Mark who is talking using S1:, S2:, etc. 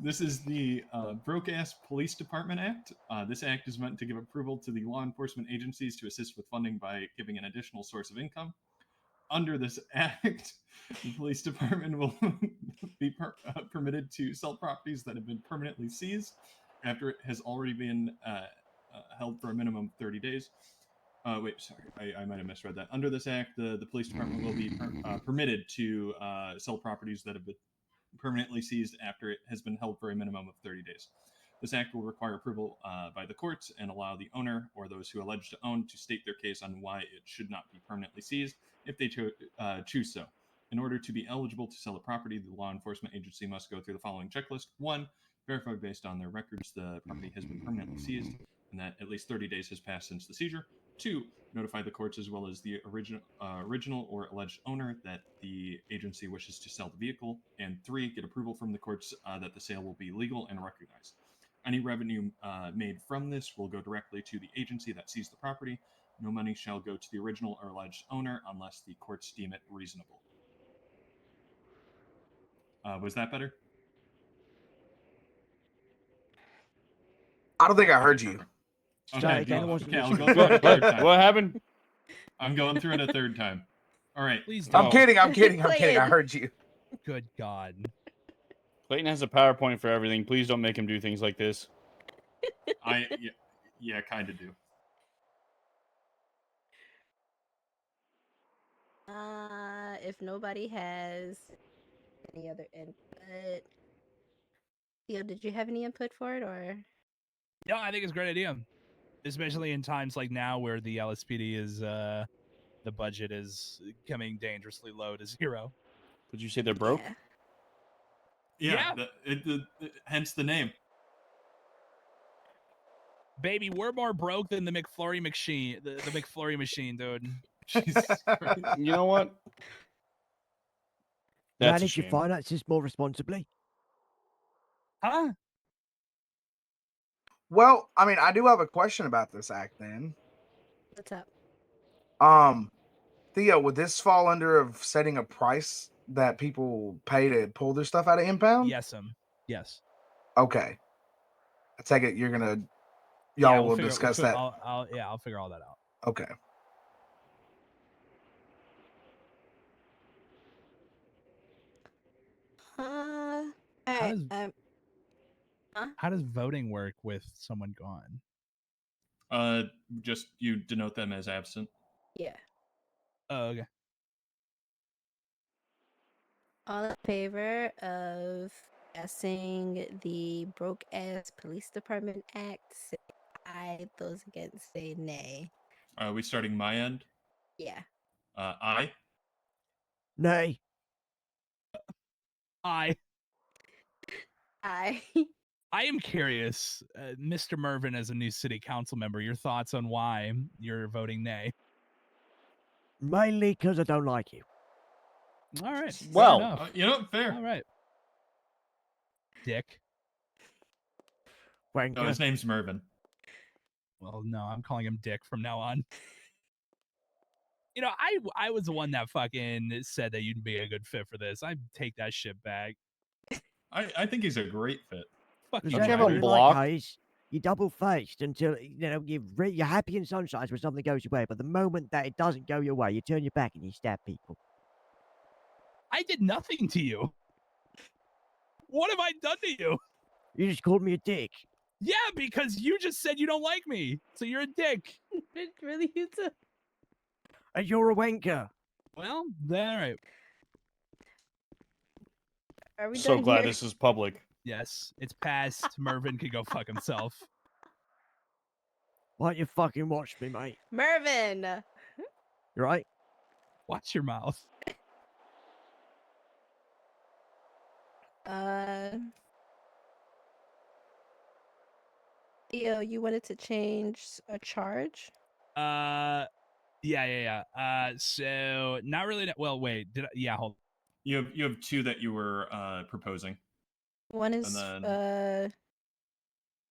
S1: This is the uh, Broke Ass Police Department Act. Uh, this act is meant to give approval to the law enforcement agencies to assist with funding by giving an additional source of income. Under this act, the police department will be per- uh, permitted to sell properties that have been permanently seized after it has already been uh, uh, held for a minimum of 30 days. Uh, wait, sorry, I, I might have misread that. Under this act, the, the police department will be per- uh, permitted to uh, sell properties that have been permanently seized after it has been held for a minimum of 30 days. This act will require approval uh, by the courts and allow the owner or those who allege to own to state their case on why it should not be permanently seized if they cho- uh, choose so. In order to be eligible to sell a property, the law enforcement agency must go through the following checklist. One, verify based on their records the property has been permanently seized and that at least 30 days has passed since the seizure. Two, notify the courts as well as the original, uh, original or alleged owner that the agency wishes to sell the vehicle. And three, get approval from the courts uh, that the sale will be legal and recognized. Any revenue uh, made from this will go directly to the agency that seized the property. No money shall go to the original or alleged owner unless the courts deem it reasonable. Uh, was that better?
S2: I don't think I heard you.
S3: Sorry, Dana
S1: go-
S3: wasn't
S1: okay, I'll
S3: listening.
S1: go through it a
S4: what,
S1: third
S4: what,
S1: time.
S4: happened?
S1: I'm going through it a third time. All right.
S5: Please don't.
S2: I'm
S4: Oh.
S2: kidding. I'm kidding. I'm
S6: Play
S2: kidding. I
S6: it.
S2: heard you.
S5: Good God.
S4: Clayton has a PowerPoint for everything. Please don't make him do things like this.
S1: I yeah, yeah kind of do.
S6: Uh, if nobody has any other input, Theo, did you have any input for it or?
S5: No, I think it's a great idea, especially in times like now where the LSPD is, uh, the budget is coming dangerously low to zero.
S4: Did you say they're broke?
S6: Yeah.
S1: Yeah.
S5: Yeah.
S1: The, it, the, the- hence the name.
S5: Baby, we're more broke than the McFlurry machine, the, the McFlurry machine, dude.
S1: Jesus Christ.
S4: You know what? That's a
S3: Manage your
S4: shame.
S3: finances more responsibly.
S5: Huh?
S2: Well, I mean, I do have a question about this act then.
S6: What's up?
S2: Um, Theo, would this fall under of setting a price that people pay to pull their stuff out of impound?
S5: Yes, um, yes.
S2: Okay. I take it you're gonna
S5: Yeah,
S2: y'all
S5: we'll
S2: will
S5: figure- we'll
S2: discuss
S5: fi-
S2: that.
S5: I'll, I'll, yeah, I'll figure all that out.
S2: Okay.
S6: Uh, all
S5: How
S6: right.
S5: does-
S6: Um,
S5: How does voting work with someone gone?
S1: Uh, just you denote them as absent.
S6: yeah.
S5: Oh, okay.
S6: All in favor of passing the broke ass police department act? Say aye. Those against say nay.
S1: Are we starting my end?
S6: Yeah.
S1: Uh, I.
S3: Nay,
S5: I,
S6: Aye.
S5: I am curious, uh, Mr. Mervin, as a new city council member, your thoughts on why you're voting nay?
S3: mainly because I don't like you.
S5: All right. fair
S4: Well,
S5: enough.
S1: Uh, you know, fair.
S5: All right. Dick.
S1: No,
S3: Wanker.
S1: Oh, his name's Mervin.
S5: Well, no, I'm calling him Dick from now on. You know, I w- I was the one that fucking said that you'd be a good fit for this. I take that shit back.
S1: I, I think he's a great fit.
S5: Fuck
S3: Is
S5: you,
S4: Don't you
S3: that
S5: Mervin.
S4: have a
S3: what you
S4: block?
S3: Like, Hayes? You're double faced until you know you're, re- you're happy and sunshines when something goes your way, but the moment that it doesn't go your way, you turn your back and you stab people.
S5: I did nothing to you. What have I done to you?
S3: You just called me a dick.
S5: Yeah, because you just said you don't like me. So you're a dick.
S6: It's really you too.
S3: And you're a wanker.
S5: Well, then, all right.
S6: Are we
S4: So
S6: done
S4: glad
S6: here?
S4: this is public.
S5: Yes, it's past. Mervin could go fuck himself.
S3: Why don't you fucking watch me, mate?
S6: Mervin.
S3: You Right?
S5: Watch your mouth.
S6: Uh, Theo, you wanted to change a charge?
S5: Uh, yeah, yeah, yeah. Uh, so not really. that- Well, wait. Did I, yeah? Hold.
S1: You have you have two that you were uh, proposing.
S6: One is
S1: then-
S6: uh